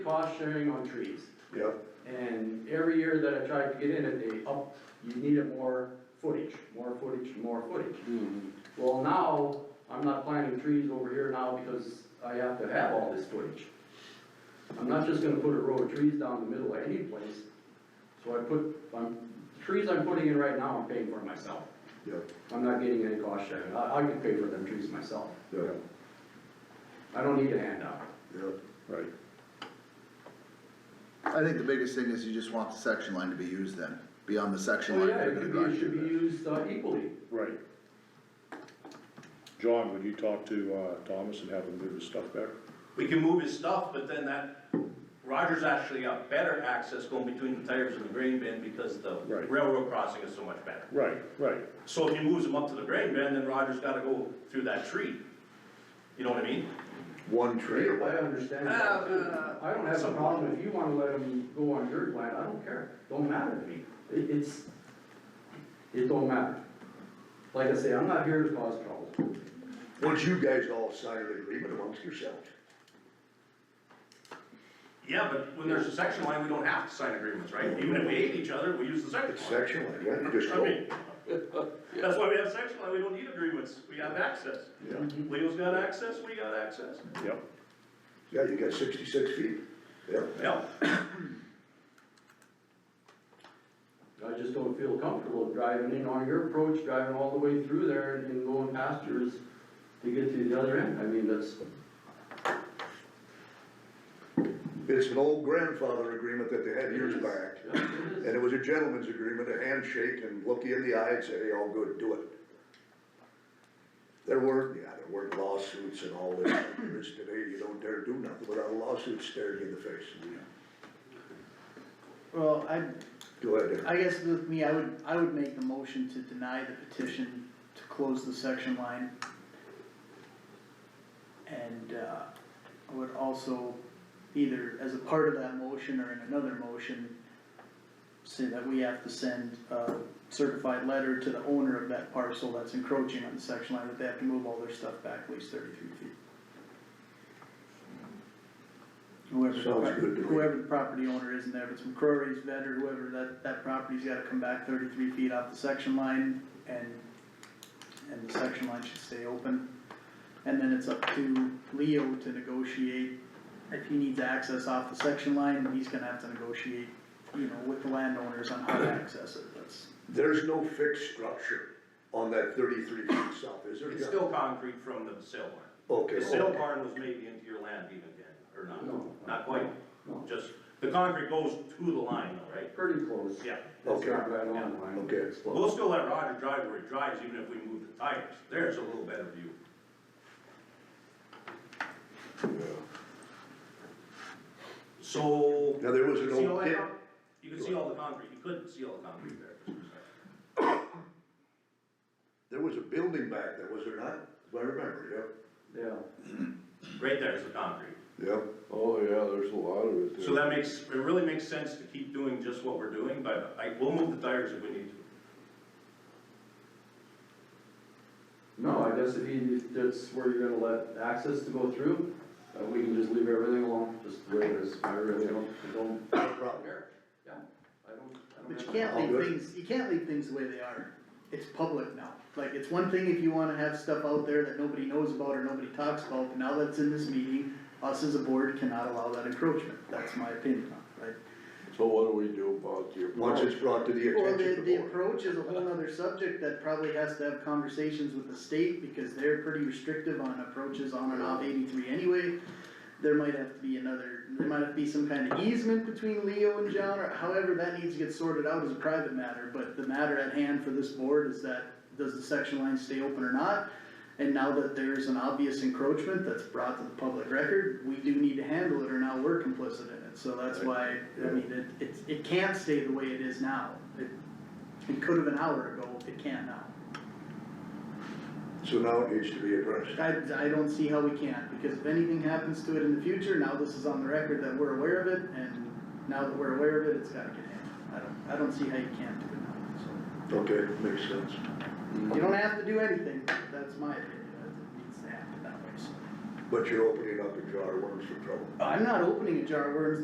cost sharing on trees. Yep, And every year that I tried to get in it, they up, you needed more footage, more footage, more footage. Well, now, I'm not planting trees over here now because I have to have all this footage. I'm not just gonna put a row of trees down the middle of any place. So I put, I'm, trees I'm putting in right now, I'm paying for myself. yep, I'm not getting any cost sharing. I, I can pay for them trees myself. yep, I don't need a handout. yep. Right. I think the biggest thing is you just want the section line to be used then, beyond the section Well, line. Oh, yeah, they're it gonna could be, it drive should through be used uh, equally. Right. John, would you talk to, uh, Thomas and have him move his stuff back? We can move his stuff, but then that, Roger's actually got better access going between the tires and the grain bin because the Right. railroad crossing is so much better. Right, right, So if he moves him up to the grain bin, then Roger's gotta go through that tree. You know what I mean? One I tree. understand that too. Uh, I don't have a some- problem if you wanna let them go on your land, I don't care, don't matter to me, it, it's, it don't matter. Like I say, I'm not here to cause trouble, Once you guys all sign an agreement amongst yourselves. Yeah, but when there's a section line, we don't have to sign agreements, right? Even if we hate each other, we use the section It's line. section line, yeah, you just I go. mean, That's why we have section line, we don't need agreements, we have access. Yeah, Leo's got access, we got access. yep, yeah, you got sixty-six feet, yeah. Yeah, I just don't feel comfortable driving in on your approach, driving all the way through there and- and going past yours to get to the other end, I mean, that's, It's an old grandfather agreement that they had years back, yeah, it and is. it was a gentleman's agreement, a handshake and look you in the eye and say, hey, all good, do it. There were, yeah, there were lawsuits and all this, there is today, you don't dare do nothing without a lawsuit staring you in the face. Well, I, Go ahead, Eric. I guess with me, I would, I would make the motion to deny the petition to close the section line. And, uh, I would also, either as a part of that motion or in another motion, say that we have to send a certified letter to the owner of that parcel that's encroaching on the section line, that they have to move all their stuff back at least thirty-three feet. Whoever, the Sounds good to pro- me. whoever the property owner is in there, if it's McCrory's vet or whoever, that, that property's gotta come back thirty-three feet off the section line and, and the section line should stay open. And then it's up to Leo to negotiate, if he needs access off the section line, he's gonna have to negotiate, you know, with the landowners on how to access it, that's. There's no fixed structure on that thirty-three feet south, is there? it's still concrete from the sale barn. Okay. Oh, The sale barn was maybe into your land even then, or not? No. Not quite, No. just, the concrete goes to the line though, right? Pretty close. Yeah. It's Okay. not right on the line. Okay. It's close. We'll still let Roger drive where he drives, even if we move the tires, there's a little better view. So. Now, there was you an can see all old that pit, con- You can see all the concrete, you couldn't see all the concrete there. there was a building back there, was there not? If I remember, Yeah, Right there is the concrete, yeah, yeah. Oh, yeah, there's a lot of it so that makes, it really makes sense to keep doing just what we're doing, but I, we'll move the tires if we need to. no, I guess if you, if that's where you're gonna let access to go through, uh, we can just leave everything alone, just the way it is, I really don't, I don't No problem. Here, yeah, I don't, I don't. But you have- can't All good. leave things, you can't leave things the way they are, it's public now, like, it's one thing if you wanna have stuff out there that nobody knows about or nobody talks about, but now that's in this meeting, us as a board cannot allow that encroachment, that's my opinion, right? So what do we do about your? Once it's brought to the Well, attention the, of the the board. approach is a whole other subject that probably has to have conversations with the state, because they're pretty restrictive on approaches on and off eighty-three anyway. There might have to be another, there might have to be some kind of easement between Leo and John, or however, that needs to get sorted out as a private matter, but the matter at hand for this board is that, does the section line stay open or not? And now that there's an obvious encroachment that's brought to the public record, we do need to handle it, or now we're complicit in it, so that's why, I mean, it, it's, it can't stay the way it is now. It, it could have an hour ago, it can't now. So now it needs to be addressed. I, I don't see how we can't, because if anything happens to it in the future, now this is on the record that we're aware of it, and now that we're aware of it, it's gotta get handled. I don't, I don't see how you can't do it now, so. Okay, makes sense. You don't have to do anything, that's my opinion, it needs to happen that way, so. but you're opening up a jar of worms for trouble. I'm not opening a jar of worms,